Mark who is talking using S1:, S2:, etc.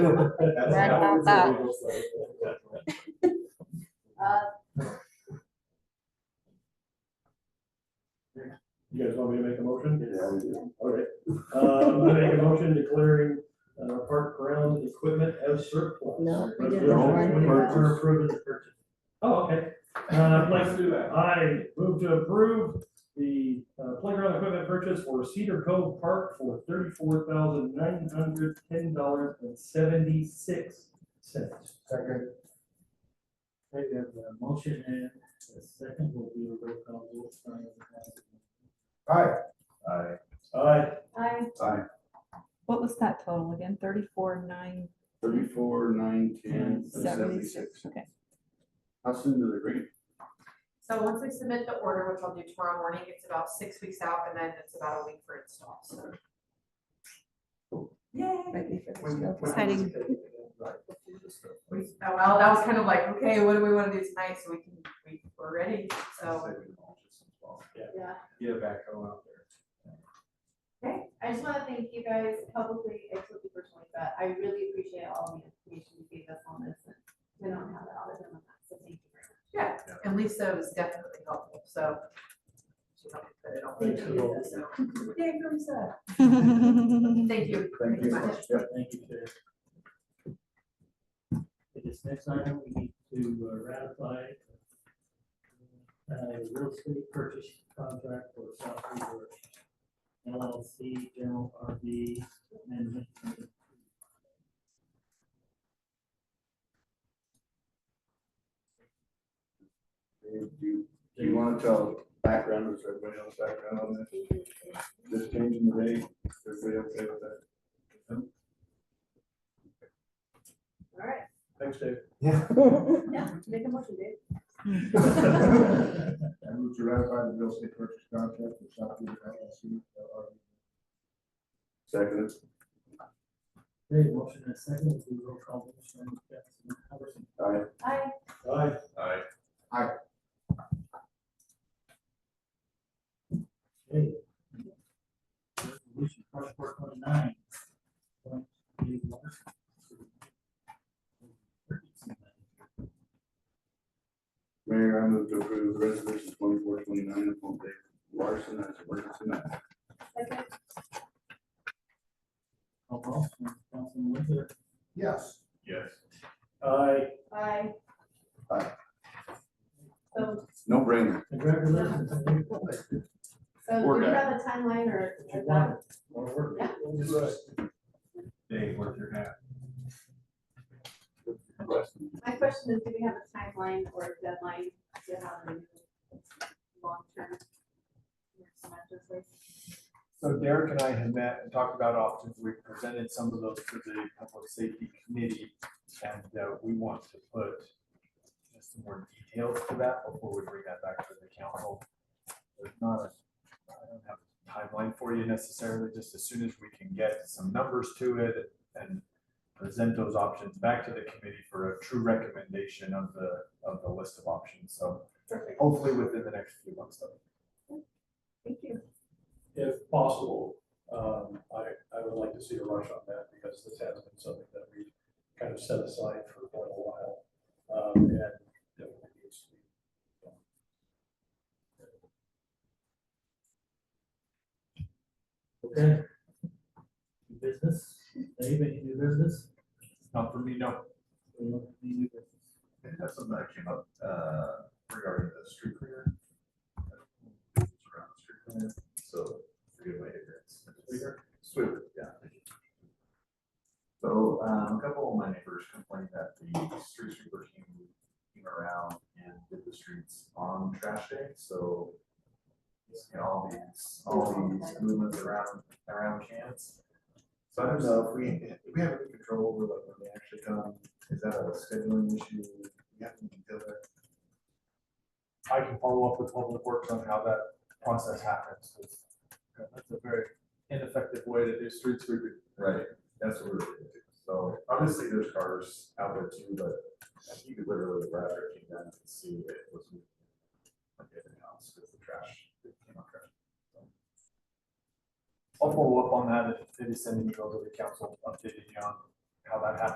S1: Right about
S2: that. You guys want me to make a motion? Yeah, we do. All right, uh, I'm gonna make a motion declaring, uh, park ground equipment as surplus.
S3: No, we did that
S2: Resolution
S3: one.
S2: We're approving the purchase. Oh, okay, uh, let's do that. I move to approve the uh, playground equipment purchase for Cedar Cove Park for thirty-four thousand nine hundred ten dollars and seventy-six cents. Second.
S4: Okay, we have a motion and a second will be a roll call vote. starting with Councilman.
S2: Aye. Aye. Aye.
S3: I,
S5: What was that total again? Thirty-four, nine,
S1: Thirty-four, nine, ten,
S5: seventy-six?
S1: seventy-six.
S5: Okay.
S1: How soon do they bring it?
S6: So once we submit the order, which I'll do tomorrow morning, it's about six weeks out and then it's about a week for install, so. Yay.
S3: might be for the snow.
S5: Exciting.
S6: We, oh, well, that was kind of like, okay, what do we want to do tonight so we can, we, we're ready, so. Yeah.
S2: Get a backhoe out there.
S7: Okay, I just wanna thank you guys publicly and to people personally, but I really appreciate all the information you gave us on this. and We don't have it all the time, so thank you very much.
S6: Yeah, and Lisa was definitely helpful, so. She helped me put it all
S2: Thanks,
S6: together, so. Yay, Lisa. Thank you.
S1: Thank you.
S6: very much.
S1: Yeah.
S4: Thank you, Chair. For this next item, we need to uh, ratify uh, real estate purchase contract for South River LLC General RV Amendment.
S1: Do you, do you wanna tell background, is everybody else background on this? Just changing the date, everybody okay with that?
S7: All right,
S2: Thanks, Dave.
S7: yeah, make a motion, Dave.
S1: I move to ratify the real estate purchase contract for South Beach LLC. Second.
S4: Okay, motion and a second will be a roll call vote. starting with Councilman Hubbard.
S1: Aye.
S7: I,
S2: Aye.
S1: Aye.
S4: Okay. Resolution twenty-four twenty-nine. Point three one.
S1: Mayor, I move to approve resolution twenty-four twenty-nine, appoint Dave Larson as emergency manager.
S7: second,
S4: Call roll, Councilman Winter,
S1: Yes. Yes.
S2: Aye.
S7: I.
S1: Aye.
S7: So,
S1: No brainer.
S4: congratulations. on your appointment.
S7: so
S1: We're
S7: do you
S1: good.
S7: have a timeline or?
S4: If you want it.
S2: Wanna work?
S7: Yeah.
S2: Dave, work your hat.
S7: My question is, do we have a timeline or a deadline to have a long-term?
S8: So Derek and I had met and talked about options. We presented some of those to the public safety committee. And uh, we want to put just some more details to that before we bring that back to the council. There's not a, I don't have a timeline for you necessarily, just as soon as we can get some numbers to it and present those options back to the committee for a true recommendation of the, of the list of options. So
S7: Perfect,
S8: hopefully within the next few months though.
S7: thank you.
S2: If possible, um, I, I would like to see a rush on that because this has been something that we kind of set aside for quite a while. Um, and definitely needs to be.
S4: Okay. New Business, Dave, any new business?
S8: Not for me, no.
S4: We don't have any new business.
S9: think that's something that came up, uh, regarding the street cleaner. Around the street cleaner, so, it's a good way to get. Sweeper, yeah. thank you. So, um, a couple of my neighbors complained that the street sweeper came, came around and did the streets on trash day, so. You know, all these, all these movements around, around cans. So I don't know if we, if we have any control over like when they actually come, is that a scheduling issue? We have to deal with that.
S8: I can follow up with Public Works on how that process happens. 'cause That's a very ineffective way to do street sweeping.
S9: Right, that's what we're, doing. so obviously there's cars out there too, but you could literally rather keep them and see if it was. moving Like everything else, because the trash, it came out trash.
S8: I'll follow up on that if they send an email to the council updating you on how that happens.